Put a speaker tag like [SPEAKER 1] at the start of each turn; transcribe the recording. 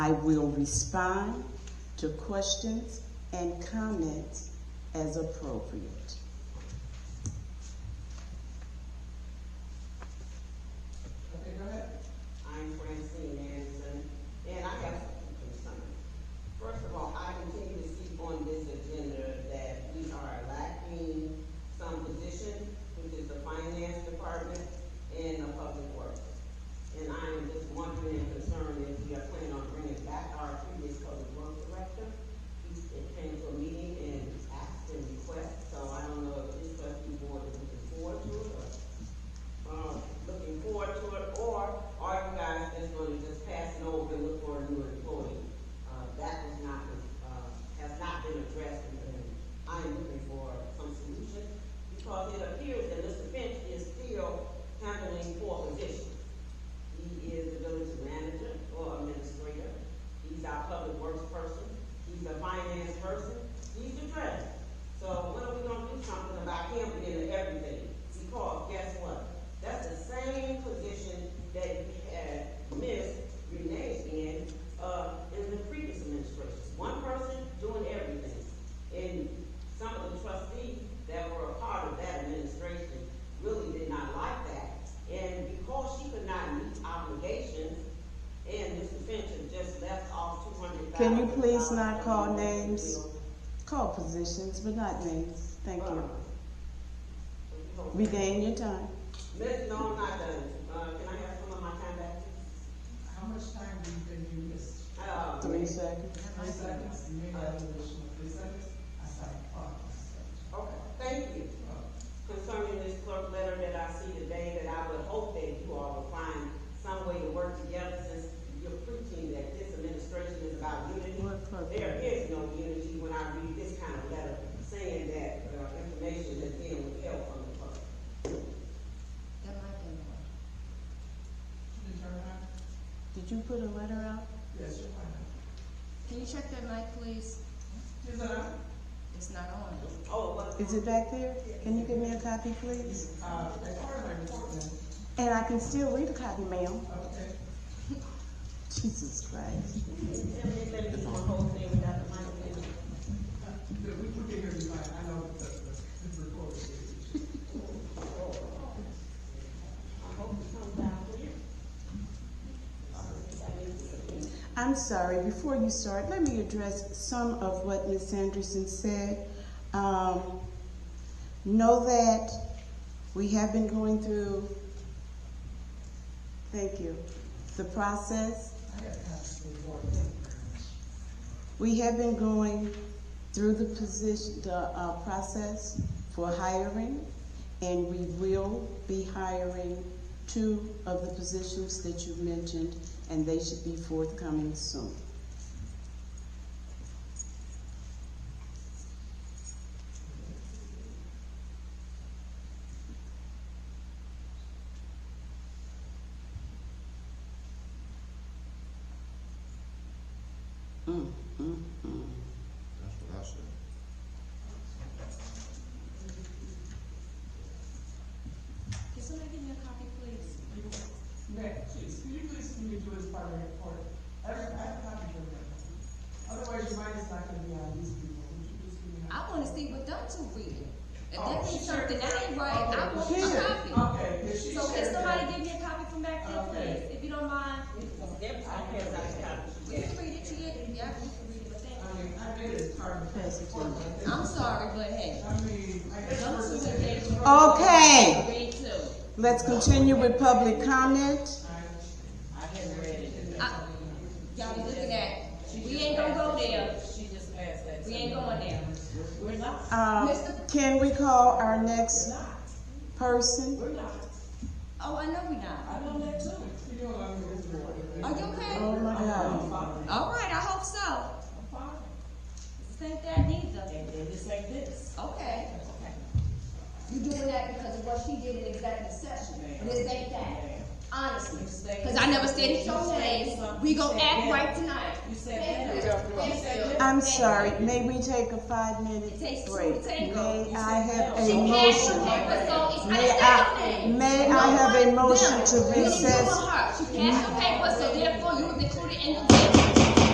[SPEAKER 1] I will respond to questions and comments as appropriate.
[SPEAKER 2] Okay, go ahead.
[SPEAKER 3] I'm Francine Anderson, and I have some concerns. First of all, I continue to see on this agenda that we are lacking some position, which is the finance department and the public works. And I am just wondering and concerned if we are planning on bringing back our previous public works director. He came to a meeting and asked and requested, so I don't know if this trustee board is looking forward to it or um, looking forward to it, or are you guys just gonna just pass it over and look for a new employee? Uh, that was not, uh, has not been addressed, and I am looking for some solution, because it appears that Mr. Finch is still handling four positions. He is the village manager or administrator, he's our public works person, he's a finance person, he's the treasurer. So when are we gonna do something about him being everything? Because guess what? That's the same position that we had Miss Renee in, uh, in the previous administration. One person doing everything. And some of the trustees that were a part of that administration really did not like that. And because she could not meet obligations, and Mr. Finch had just left off two hundred thousand.
[SPEAKER 1] Can you please not call names? Call positions, but not names. Thank you. Regain your time.
[SPEAKER 3] Miss, no, I'm not done. Uh, can I have some of my time back?
[SPEAKER 2] How much time do you think you missed?
[SPEAKER 3] Uh,
[SPEAKER 1] Three seconds.
[SPEAKER 2] Three seconds, you made that additional three seconds, I started clocking.
[SPEAKER 3] Okay, thank you. Concerning this clerk letter that I see today, that I would hope that you all will find some way to work together since you're preaching that this administration is about unity.
[SPEAKER 1] What clerk?
[SPEAKER 3] There is no unity when I read this kind of letter saying that, uh, information is being withheld from the public.
[SPEAKER 4] That might be more.
[SPEAKER 2] Did you turn it on?
[SPEAKER 1] Did you put a letter out?
[SPEAKER 2] Yes, you might.
[SPEAKER 4] Can you check that mic, please?
[SPEAKER 2] Is it on?
[SPEAKER 4] It's not on.
[SPEAKER 3] Oh, what?
[SPEAKER 1] Is it back there? Can you give me a copy, please?
[SPEAKER 2] Uh, as far as my report then,
[SPEAKER 1] And I can still read a copy, ma'am.
[SPEAKER 2] okay.
[SPEAKER 1] Jesus Christ.
[SPEAKER 3] Let me do my whole thing without the mic in.
[SPEAKER 2] But we can figure it out, I know that the, the report is.
[SPEAKER 3] I hope it comes out clear.
[SPEAKER 1] I'm sorry, before you start, let me address some of what Ms. Anderson said. Um, know that we have been going through, thank you, the process.
[SPEAKER 2] I got past the report.
[SPEAKER 1] We have been going through the position, the, uh, process for hiring, and we will be hiring two of the positions that you mentioned, and they should be forthcoming soon. Mm, mm, mm.
[SPEAKER 5] That's what I said.
[SPEAKER 4] Can somebody give me a copy, please?
[SPEAKER 2] Nick, please, can you please continue to do his part of the report? Every, I have not been doing that. Otherwise, your mind is not gonna be on these people, would you please give me? a-
[SPEAKER 4] I wanna see what them two reading. If
[SPEAKER 2] Oh,
[SPEAKER 4] that
[SPEAKER 2] she
[SPEAKER 4] means
[SPEAKER 2] shared
[SPEAKER 4] something that
[SPEAKER 2] it.
[SPEAKER 4] ain't right, I
[SPEAKER 2] Okay,
[SPEAKER 4] want
[SPEAKER 2] she shared
[SPEAKER 4] a
[SPEAKER 2] it.
[SPEAKER 4] copy.
[SPEAKER 2] Okay, if she
[SPEAKER 4] So can
[SPEAKER 2] shared
[SPEAKER 4] somebody
[SPEAKER 2] it-
[SPEAKER 4] give me a copy from back there,
[SPEAKER 2] Okay.
[SPEAKER 4] please? If you don't mind,
[SPEAKER 3] Every time I pass, I
[SPEAKER 4] we
[SPEAKER 3] count.
[SPEAKER 4] can read it to you. Yeah, we can read it, but thank
[SPEAKER 2] I
[SPEAKER 4] you.
[SPEAKER 2] mean, I did it part of the
[SPEAKER 1] Pass it to me.
[SPEAKER 2] report.
[SPEAKER 4] I'm sorry, but hey.
[SPEAKER 2] I mean, I guess.
[SPEAKER 4] them
[SPEAKER 2] we're
[SPEAKER 4] two
[SPEAKER 2] just-
[SPEAKER 4] engaged.
[SPEAKER 1] Okay.
[SPEAKER 4] Read two.
[SPEAKER 1] Let's continue with public comment.
[SPEAKER 6] I hadn't read it.
[SPEAKER 4] I- Y'all be looking at, we ain't gonna go there.
[SPEAKER 6] She just passed that.
[SPEAKER 4] We ain't going there.
[SPEAKER 6] We're not,
[SPEAKER 1] Um,
[SPEAKER 4] Mr.
[SPEAKER 1] Can we call our
[SPEAKER 6] we're
[SPEAKER 1] next
[SPEAKER 6] not,
[SPEAKER 1] person?
[SPEAKER 6] we're not.
[SPEAKER 4] Oh, I know we not.
[SPEAKER 6] I know that too.
[SPEAKER 2] You know, I'm gonna do it.
[SPEAKER 4] Are you okay?
[SPEAKER 1] Oh, my God.
[SPEAKER 4] All right, I hope so.
[SPEAKER 6] I'm fine.
[SPEAKER 4] This ain't that neither.
[SPEAKER 6] And then it's like this.
[SPEAKER 4] Okay.
[SPEAKER 6] Okay.
[SPEAKER 4] You're doing that because of what she did in executive session.
[SPEAKER 6] Ma'am.
[SPEAKER 4] This ain't that,
[SPEAKER 6] Ma'am.
[SPEAKER 4] honestly.
[SPEAKER 6] You said-
[SPEAKER 4] Because I never said
[SPEAKER 6] You
[SPEAKER 4] your
[SPEAKER 6] said
[SPEAKER 4] name.
[SPEAKER 6] something.
[SPEAKER 4] We
[SPEAKER 6] You
[SPEAKER 4] gonna
[SPEAKER 6] said
[SPEAKER 4] act
[SPEAKER 6] that.
[SPEAKER 4] right tonight.
[SPEAKER 6] You said
[SPEAKER 4] Thank
[SPEAKER 6] that.
[SPEAKER 4] you.
[SPEAKER 6] You said
[SPEAKER 4] Thank you.
[SPEAKER 6] that.
[SPEAKER 1] I'm
[SPEAKER 4] Thank
[SPEAKER 1] sorry,
[SPEAKER 4] you.
[SPEAKER 1] may we take a five-minute
[SPEAKER 4] It takes two
[SPEAKER 1] break?
[SPEAKER 4] to tango.
[SPEAKER 1] May I have a
[SPEAKER 4] She passed your
[SPEAKER 1] motion?
[SPEAKER 4] paper, so it's, I
[SPEAKER 1] May
[SPEAKER 4] didn't
[SPEAKER 1] I-
[SPEAKER 4] say your name.
[SPEAKER 1] may
[SPEAKER 4] No
[SPEAKER 1] I have a
[SPEAKER 4] one
[SPEAKER 1] motion
[SPEAKER 4] did.
[SPEAKER 1] to
[SPEAKER 4] You didn't do
[SPEAKER 1] recess?
[SPEAKER 4] her. She passed your paper, so therefore you was included in the.